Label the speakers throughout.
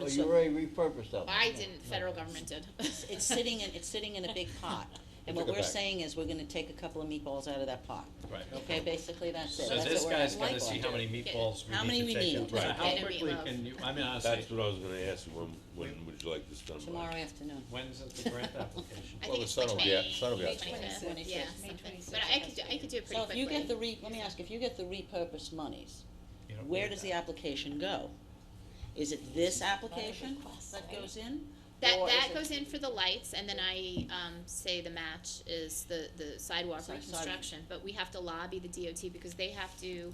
Speaker 1: Oh, you
Speaker 2: So-
Speaker 1: already repurposed that one?
Speaker 2: I didn't, federal government did.
Speaker 3: It's sitting in, it's sitting in a big pot, and what
Speaker 1: Took it
Speaker 3: we're
Speaker 1: back.
Speaker 3: saying is we're gonna take a couple of meatballs out of that pot.
Speaker 4: Right.
Speaker 3: Okay, basically that's it,
Speaker 4: So
Speaker 3: that's
Speaker 4: this
Speaker 3: what we're
Speaker 4: guy's
Speaker 3: gonna
Speaker 4: gonna see how many meatballs
Speaker 3: How
Speaker 4: we
Speaker 3: many we
Speaker 4: need to take
Speaker 3: need.
Speaker 4: out. So
Speaker 3: Right.
Speaker 4: How
Speaker 2: And a
Speaker 4: quickly
Speaker 2: meatloaf.
Speaker 4: can you, I mean, honestly,
Speaker 5: That's what I was gonna ask you, when, when would you like this done by?
Speaker 3: Tomorrow afternoon.
Speaker 4: when's the grant application?
Speaker 2: I
Speaker 1: Well,
Speaker 2: think
Speaker 1: the
Speaker 2: it's
Speaker 1: sun
Speaker 2: like
Speaker 1: will be out-
Speaker 2: May
Speaker 1: sun will be out soon.
Speaker 2: 25th,
Speaker 3: Twenty-sixth.
Speaker 2: yeah,
Speaker 3: May
Speaker 2: something,
Speaker 6: 26th,
Speaker 2: but I could, do- I could do it pretty
Speaker 3: So if
Speaker 2: quickly.
Speaker 3: you get the re, let me ask, if you get the repurposed monies,
Speaker 4: You don't
Speaker 3: where
Speaker 4: need
Speaker 3: does
Speaker 4: that.
Speaker 3: the application go? Is it this application that goes in?
Speaker 2: That,
Speaker 3: Or is
Speaker 2: that
Speaker 3: it-
Speaker 2: goes in for the lights, and then I, um, say the match is the, the sidewalk
Speaker 3: Side- sidewalk.
Speaker 2: reconstruction, but we have to lobby the DOT, because they have to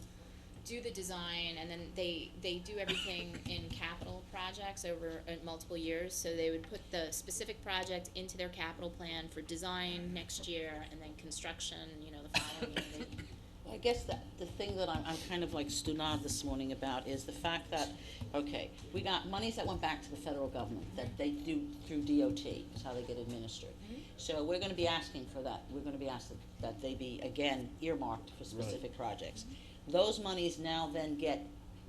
Speaker 2: do the design, and then they, they do everything in capital projects over, uh, multiple years, so they would put the specific project into their capital plan for design next year, and then construction, you know, the following year, They-
Speaker 3: I guess that, the thing that I'm, I'm kind of like stunad this morning about is the fact that, okay, we got monies that went back to the federal government, that they do through DOT, is how they get administered. So we're gonna be asking for that, we're gonna be asked that- that they be, again, earmarked for specific projects. Those monies now then get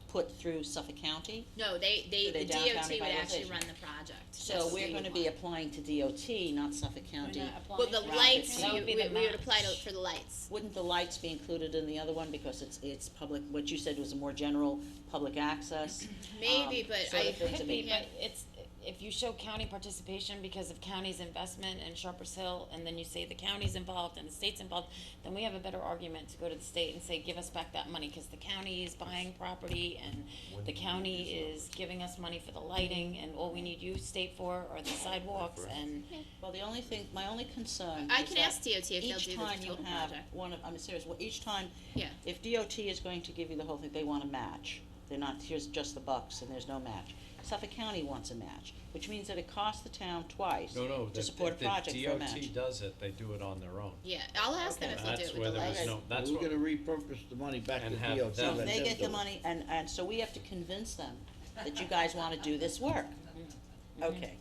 Speaker 3: put through Suffolk County,
Speaker 2: No, they,
Speaker 3: Do
Speaker 2: they,
Speaker 3: they
Speaker 2: the
Speaker 3: down
Speaker 2: DOT
Speaker 3: county
Speaker 2: would actually
Speaker 3: privatization?
Speaker 2: run the project. That's
Speaker 3: so
Speaker 2: what
Speaker 3: we're
Speaker 2: we would
Speaker 3: gonna be
Speaker 2: want.
Speaker 3: applying to DOT, not Suffolk County.
Speaker 2: Well, the
Speaker 3: Right.
Speaker 2: lights,
Speaker 3: That
Speaker 2: you,
Speaker 6: would be
Speaker 2: we,
Speaker 6: the
Speaker 2: we would apply to,
Speaker 6: match.
Speaker 2: for the lights.
Speaker 3: Wouldn't the lights be included in the other one, because it's, it's public, what you said was a more general public access?
Speaker 2: Maybe,
Speaker 3: um,
Speaker 2: but
Speaker 3: sort of
Speaker 2: I-
Speaker 3: thing to
Speaker 6: Could
Speaker 3: be-
Speaker 6: be, but it's, if you show county participation because of county's investment in Sharpers Hill, and then you say the county's involved and the state's involved, then we have a better argument to go to the state and say, give us back that money, cause the county is buying property and the county is giving us money for the lighting, and all we need you state for are the sidewalks and.
Speaker 3: Well, the only thing, my only concern
Speaker 2: I
Speaker 3: is
Speaker 2: can
Speaker 3: that
Speaker 2: ask DOT if they'll do
Speaker 3: each
Speaker 2: the
Speaker 3: time you
Speaker 2: total
Speaker 3: have
Speaker 2: project.
Speaker 3: one of, I'm serious, well, each time,
Speaker 2: Yeah.
Speaker 3: if DOT is going to give you the whole thing, they want a match. They're not, here's just the bucks and there's no match. Suffolk County wants a match, which means that it costs the town twice
Speaker 4: No, no,
Speaker 3: to support a
Speaker 4: the,
Speaker 3: project
Speaker 4: the
Speaker 3: for a match.
Speaker 4: DOT does it, they do it on their own.
Speaker 2: Yeah, I'll ask them
Speaker 4: And
Speaker 2: if they'll do
Speaker 4: that's
Speaker 2: it
Speaker 4: where
Speaker 2: with the
Speaker 4: there was
Speaker 2: lights.
Speaker 4: no, that's
Speaker 1: We're
Speaker 4: what,
Speaker 1: gonna repurpose the money back to
Speaker 4: And have
Speaker 1: DOT.
Speaker 4: them-
Speaker 3: So
Speaker 1: let
Speaker 3: they
Speaker 1: them
Speaker 3: get
Speaker 1: do
Speaker 3: the
Speaker 1: it.
Speaker 3: money, and, and so we have to convince them that you guys wanna do this work.
Speaker 2: Mm-hmm.
Speaker 3: Okay.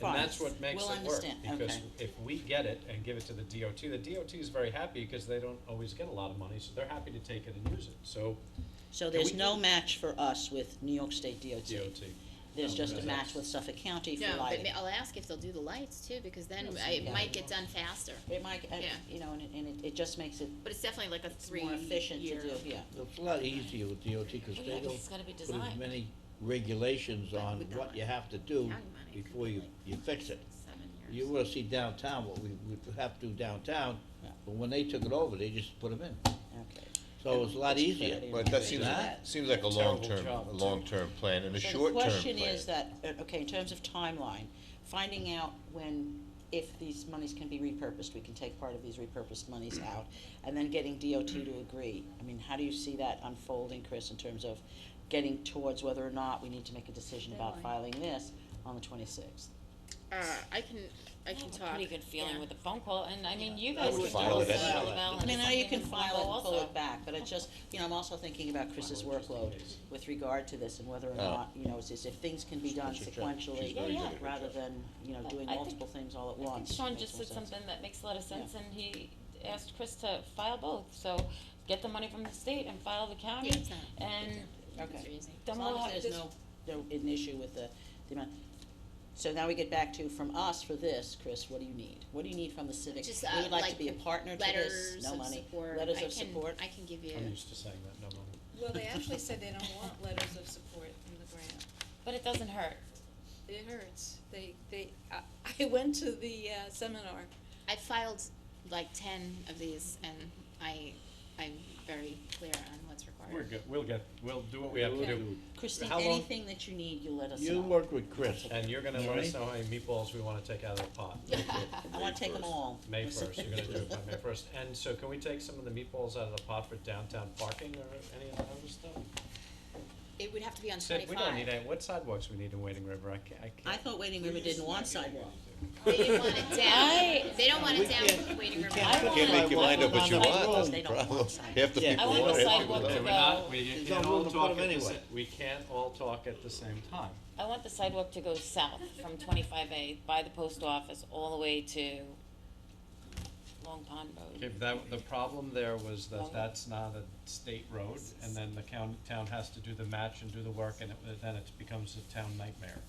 Speaker 3: Fine.
Speaker 4: and that's what makes
Speaker 3: We'll
Speaker 4: it work,
Speaker 3: understand.
Speaker 4: because
Speaker 3: Okay.
Speaker 4: if we get it and give it to the DOT, the DOT is very happy because they don't always get a lot of money, so they're happy to take it and use it, so
Speaker 3: So
Speaker 4: Can
Speaker 3: there's
Speaker 4: we
Speaker 3: no
Speaker 4: do-
Speaker 3: match for us with New York State DOT.
Speaker 4: DOT.
Speaker 3: There's
Speaker 4: No,
Speaker 3: just a
Speaker 4: because
Speaker 3: match
Speaker 4: that's-
Speaker 3: with Suffolk County
Speaker 2: No,
Speaker 3: for
Speaker 2: but
Speaker 3: lighting.
Speaker 2: ma- I'll ask if they'll do the lights too, because then
Speaker 3: Yes,
Speaker 2: I- it
Speaker 3: yeah.
Speaker 2: might get done faster.
Speaker 3: It might, uh,
Speaker 2: Yeah.
Speaker 3: you know, and it, and it, it just makes it
Speaker 2: But it's definitely like a
Speaker 3: it's
Speaker 2: three
Speaker 3: more efficient to
Speaker 2: year.
Speaker 3: do, yeah.
Speaker 1: It's a lot easier with DOT, cause
Speaker 6: Yeah,
Speaker 1: they
Speaker 6: 'cause it's gotta be
Speaker 1: don't put as
Speaker 6: designed.
Speaker 1: many regulations
Speaker 2: But
Speaker 1: on
Speaker 2: with that
Speaker 1: what
Speaker 2: one,
Speaker 1: you have to do
Speaker 2: county money could
Speaker 1: before
Speaker 2: be
Speaker 1: you,
Speaker 2: like
Speaker 1: you fix it.
Speaker 2: Seven
Speaker 1: You
Speaker 2: years.
Speaker 1: wanna see downtown, what we, we have to do downtown,
Speaker 3: Yeah.
Speaker 1: but when they took it over, they just put them in,
Speaker 3: Okay.
Speaker 7: Oh,
Speaker 1: so it's a lot
Speaker 3: It's
Speaker 1: easier.
Speaker 3: pretty
Speaker 7: But that
Speaker 3: amazing.
Speaker 7: seems,
Speaker 1: Not-
Speaker 7: seems like a
Speaker 4: Terrible
Speaker 7: long-term,
Speaker 4: job,
Speaker 7: a
Speaker 4: too.
Speaker 7: long-term plan and a
Speaker 3: So
Speaker 7: short-term plan.
Speaker 3: The question is that, uh, okay, in terms of timeline, finding out when, if these monies can be repurposed, we can take part of these repurposed monies out, and then getting DOT to agree. I mean, how do you see that unfolding, Chris, in terms of getting towards whether or not we need to make a decision about filing this on the twenty-sixth?
Speaker 2: Uh, I can, I can
Speaker 6: have a
Speaker 2: talk.
Speaker 6: Pretty good feeling
Speaker 2: Yeah.
Speaker 6: with the phone call, and I mean, you guys
Speaker 1: would
Speaker 6: can
Speaker 7: file
Speaker 6: do
Speaker 7: it
Speaker 6: it
Speaker 7: as
Speaker 6: as
Speaker 7: well.
Speaker 6: well.
Speaker 3: I mean, now you can
Speaker 6: and something
Speaker 3: file it and pull
Speaker 6: also.
Speaker 3: it back, but it's just, you know, I'm also thinking about Chris's
Speaker 4: File it just in
Speaker 3: workload
Speaker 4: case.
Speaker 3: with regard to this and whether or
Speaker 7: Oh.
Speaker 3: not, you know, is this, if things can be done
Speaker 1: She's very
Speaker 3: sequentially,
Speaker 6: good at Yeah, yeah.
Speaker 3: rather than, you know,
Speaker 6: But
Speaker 3: doing
Speaker 6: I think-
Speaker 3: multiple things all at
Speaker 6: I think
Speaker 3: once.
Speaker 6: Sean
Speaker 3: makes
Speaker 6: just
Speaker 3: more
Speaker 6: said
Speaker 3: sense.
Speaker 6: something that makes a lot of sense, and he asked Chris to file both, so get the money from the state and file the county,
Speaker 2: Yeah, it's not-
Speaker 6: and
Speaker 2: It's
Speaker 3: Okay,
Speaker 2: easy.
Speaker 3: as
Speaker 6: then we'll
Speaker 3: long
Speaker 6: have
Speaker 3: as
Speaker 6: this-
Speaker 3: there's no, no, an issue with the, the amount. So now we get back to, from us for this, Chris, what do you need? What do you need from the civic?
Speaker 2: Just,
Speaker 3: We
Speaker 2: uh,
Speaker 3: would like to
Speaker 2: like
Speaker 3: be a partner to this,
Speaker 2: Letters
Speaker 3: no
Speaker 2: of
Speaker 3: money.
Speaker 2: support. I
Speaker 3: Letters of
Speaker 2: can-
Speaker 3: support.
Speaker 2: I can give
Speaker 4: I'm
Speaker 2: you,
Speaker 4: used to saying that, no money.
Speaker 8: Well, they actually said they don't want letters of support from the grant.
Speaker 6: but it doesn't hurt.
Speaker 8: It hurts. They, they, I, I went to the uh, seminar.
Speaker 2: I filed like ten of these and I, I'm very clear on what's required.
Speaker 4: We're good, we'll get, we'll do what we have to
Speaker 1: We'll
Speaker 4: do,
Speaker 1: do
Speaker 3: Christine,
Speaker 4: How long-
Speaker 3: anything that you need, you let us know.
Speaker 1: You work with Chris.
Speaker 4: and you're gonna let
Speaker 1: Alright.
Speaker 4: us know how many meatballs we wanna take out of the pot.
Speaker 3: I wanna take them all.
Speaker 4: May first, you're gonna do it by May first, and so can we take some of the meatballs out of the pot for downtown parking or any of that other stuff?
Speaker 2: It would have to be on
Speaker 4: Sid,
Speaker 2: twenty-five.
Speaker 4: we don't need any, what sidewalks we need in Wading River, I can't, I
Speaker 3: I
Speaker 4: can't.
Speaker 3: thought Wading River didn't want sidewalk.
Speaker 2: They didn't want it
Speaker 6: I-
Speaker 2: down, they don't want it down Waiting River.
Speaker 6: I
Speaker 7: You
Speaker 6: want-
Speaker 7: Can't make your mind up what you
Speaker 6: I
Speaker 7: want, that's
Speaker 3: They
Speaker 7: the
Speaker 3: don't want
Speaker 7: problem.
Speaker 3: sidewalks.
Speaker 7: Half the
Speaker 1: Yeah.
Speaker 7: people
Speaker 6: I want
Speaker 7: want
Speaker 6: the
Speaker 7: it, half the
Speaker 6: sidewalk
Speaker 7: people
Speaker 6: to
Speaker 7: don't.
Speaker 4: Okay, we're
Speaker 6: go-
Speaker 4: not, we
Speaker 1: There's
Speaker 4: can't
Speaker 1: no
Speaker 4: all
Speaker 1: room to put
Speaker 4: talk at
Speaker 1: them
Speaker 4: the, sa-
Speaker 1: anyway.
Speaker 4: we can't all talk at the same time.
Speaker 6: I want the sidewalk to go south from twenty-five A by the post office all the way to Long Pond Road.
Speaker 4: If that, the problem there was
Speaker 6: Long-
Speaker 4: that that's not a state road, and then the county, town has to do the match and do the work, and it, then it becomes a town nightmare.